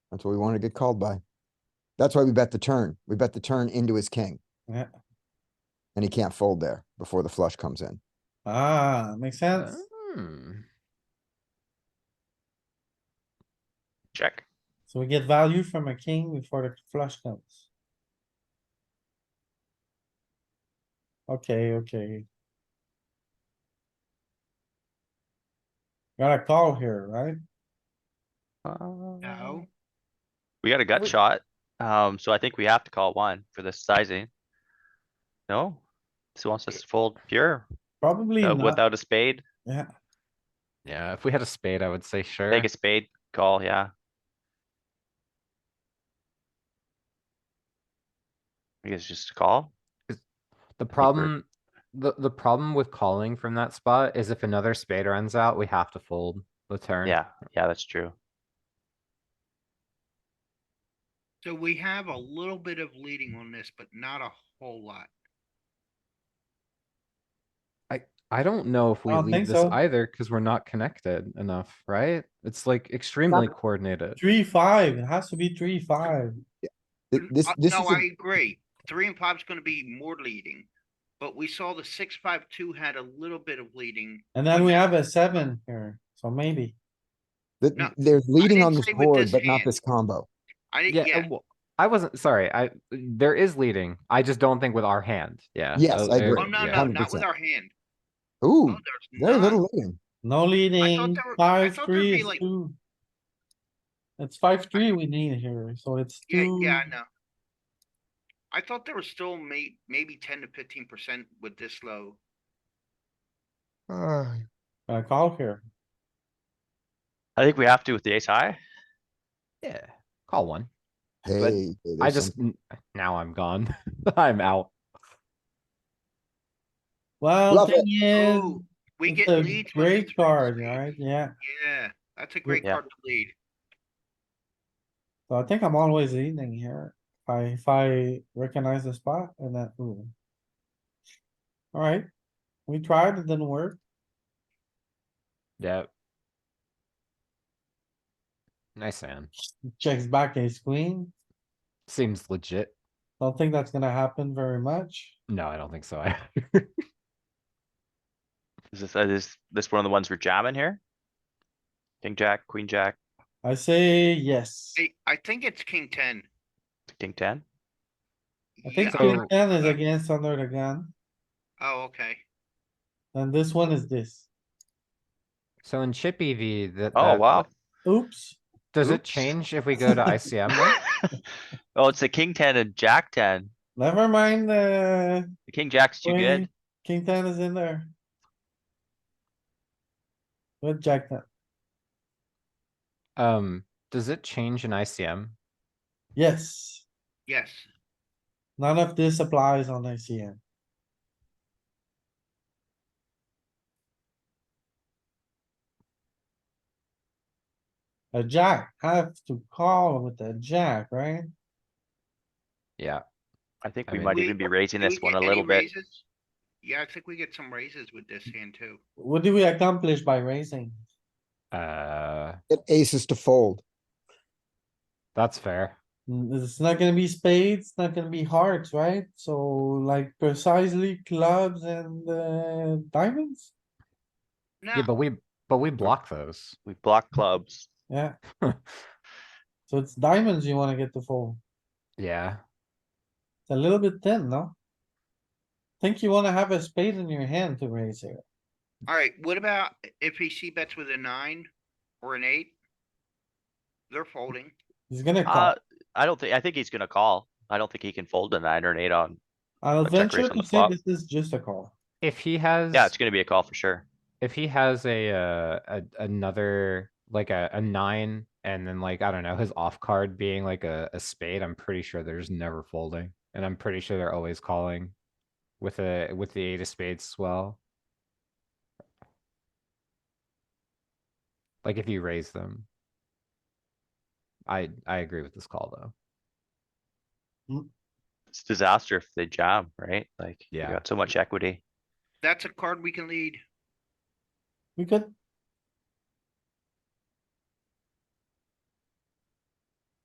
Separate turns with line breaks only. That's what we wanted to get called by. That's why we bet the turn. We bet the turn into his king.
Yeah.
And he can't fold there before the flush comes in.
Ah, makes sense.
Hmm.
Check.
So we get value from a king before the flush comes. Okay, okay. Got a call here, right?
No.
We got a gut
Um, We-
shot, um, so I think we have to call one for this sizing. No? This wants us to fold pure,
Probably
uh,
not,
without a spade,
yeah.
Yeah, if we had a spade, I would say sure.
take a spade, call, yeah. I guess just call,
The
we're-
problem, the, the problem with calling from that spot is if another spade runs out, we have to fold the turn.
yeah, yeah, that's true.
So we have a little bit of leading on this, but not a whole lot.
I don't know if we
don't think
leave this
so.
either, cuz we're not connected enough, right? It's like extremely coordinated.
Three, five, it has to be three, five.
Th- This,
Uh,
this
No,
is,
I
a-
agree. Three and five's gonna be more leading. But we saw the six, five, two had a little bit of leading.
And then we have a seven here, so maybe.
th-
no,
they're leading
didn't
on this
say with
board,
this
but not
hand.
this combo.
I
Yeah,
didn't, yeah,
uh, well, I wasn't, sorry, I, there is leading. I just don't think with our hand, yeah.
Yes,
uh,
I
there-
agree.
oh, no,
yeah.
no, not with
100%.
our hand.
Ooh,
Oh, No, there's
very
not.
little leading.
No leading,
there were- I
five,
thought there'd
three
be
is
like-
two. It's five, three we need here, so it's
Yeah,
two.
yeah, I know. I thought there was still may, maybe ten to fifteen percent with this low.
Uh,
A call here.
I think we have to with the ace high,
Yeah, call one.
Hey. hey,
I
there's
just,
some-
n- now I'm gone. I'm out.
Well,
Love it.
thing is,
Oh, we
it's
get
a
leads. when we
great
trade
card,
spades.
right? Yeah,
Yeah, that's a great
Yeah.
card to lead.
so I think I'm always leading here. If I, if I recognize the spot and that, ooh. Alright, we tried, it didn't work.
Yep. Nice hand.
Checks back ace queen.
Seems legit.
Don't think that's gonna happen very much.
No, I don't think so. I
is this, uh, is this one of the ones we're jamming here? King, jack, queen, jack,
I say yes.
I, I think it's king ten.
king ten,
I think
Yeah, Uh,
so.
king ten is against under the gun,
Oh, okay.
and this one is this.
So in chip EV, that.
oh,
that-
wow.
Oops,
Does it
Oops.
change if we go to ICM? now?
Oh, it's a king ten and jack ten,
never mind, uh,
the king jack's too good.
Wait. king ten is in there. With jack ten.
Um, does it change in ICM?
Yes.
Yes,
None of this applies on ICM. A jack, have to call with a jack, right?
Yeah,
I think
I
we
mean-
might
We-
even be raising
Do
this
we
one
get
a
any
little bit.
raises? Yeah, I think we get some raises with this hand too.
What do we accomplish by raising?
uh,
Get aces to fold.
that's fair.
Mm, It's not gonna be spades, it's not gonna be hearts, right? So like precisely clubs and uh, diamonds?
Yeah,
No,
but we, but we block those.
We block clubs.
Yeah. So it's diamonds you wanna get to fold.
Yeah,
It's a little bit thin, no? Think you wanna have a spade in your hand to raise here.
alright, what about if he see bets with a nine or an eight? They're folding.
He's gonna call.
Uh, I don't think, I think he's gonna call. I don't think he can fold a nine or an eight on.
I'll
a check
venture
raise on
to
the
say
flop.
this is just a call.
if he has,
Yeah, it's gonna be a call for sure.
if he has a, uh, a, another, like a, a nine. And then like, I don't know, his off card being like a, a spade, I'm pretty sure there's never folding. And I'm pretty sure they're always calling with a, with the eight of spades as well. Like if you raise them. I, I agree with this call though.
It's disaster if they jam, right? Like, you
Yeah.
got so much equity.
That's a card we can lead.
We could